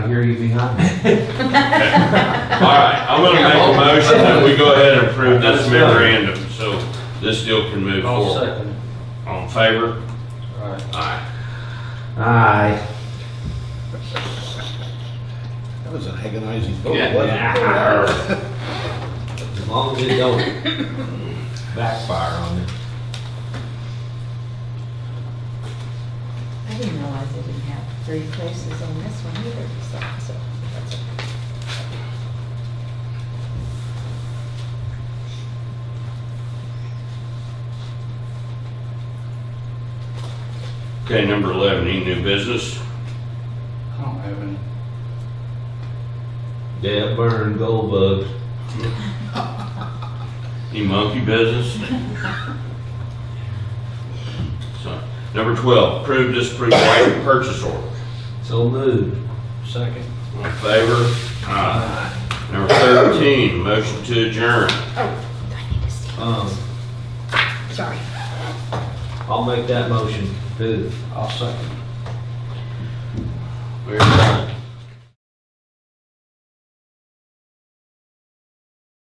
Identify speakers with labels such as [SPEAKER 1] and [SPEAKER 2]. [SPEAKER 1] I hear you behind me.
[SPEAKER 2] All right, I'm gonna make a motion that we go ahead and approve this memorandum, so this deal can move
[SPEAKER 3] I'll
[SPEAKER 2] forward.
[SPEAKER 4] Oh.
[SPEAKER 3] second.
[SPEAKER 2] On favor?
[SPEAKER 3] All right.
[SPEAKER 2] Aye.
[SPEAKER 1] Aye.
[SPEAKER 4] That was an agonizing vote, wasn't
[SPEAKER 2] Yeah.
[SPEAKER 4] it? As long as it don't backfire on you.
[SPEAKER 5] I didn't realize they didn't have three places on this one either, so, so. that's okay.
[SPEAKER 2] Okay, number eleven, any new business?
[SPEAKER 3] I don't have any.
[SPEAKER 4] Dead burn gold bugs.
[SPEAKER 2] Any monkey business? So, Number twelve, approve, disapprove, waive purchase order.
[SPEAKER 4] So moved.
[SPEAKER 3] Second.
[SPEAKER 2] All in favor? Aye. Number thirteen, motion to adjourn.
[SPEAKER 5] Oh, do I need to see?
[SPEAKER 4] Um,
[SPEAKER 5] Sorry.
[SPEAKER 4] I'll make that motion. Who?
[SPEAKER 3] I'll second.
[SPEAKER 2] We're adjourned.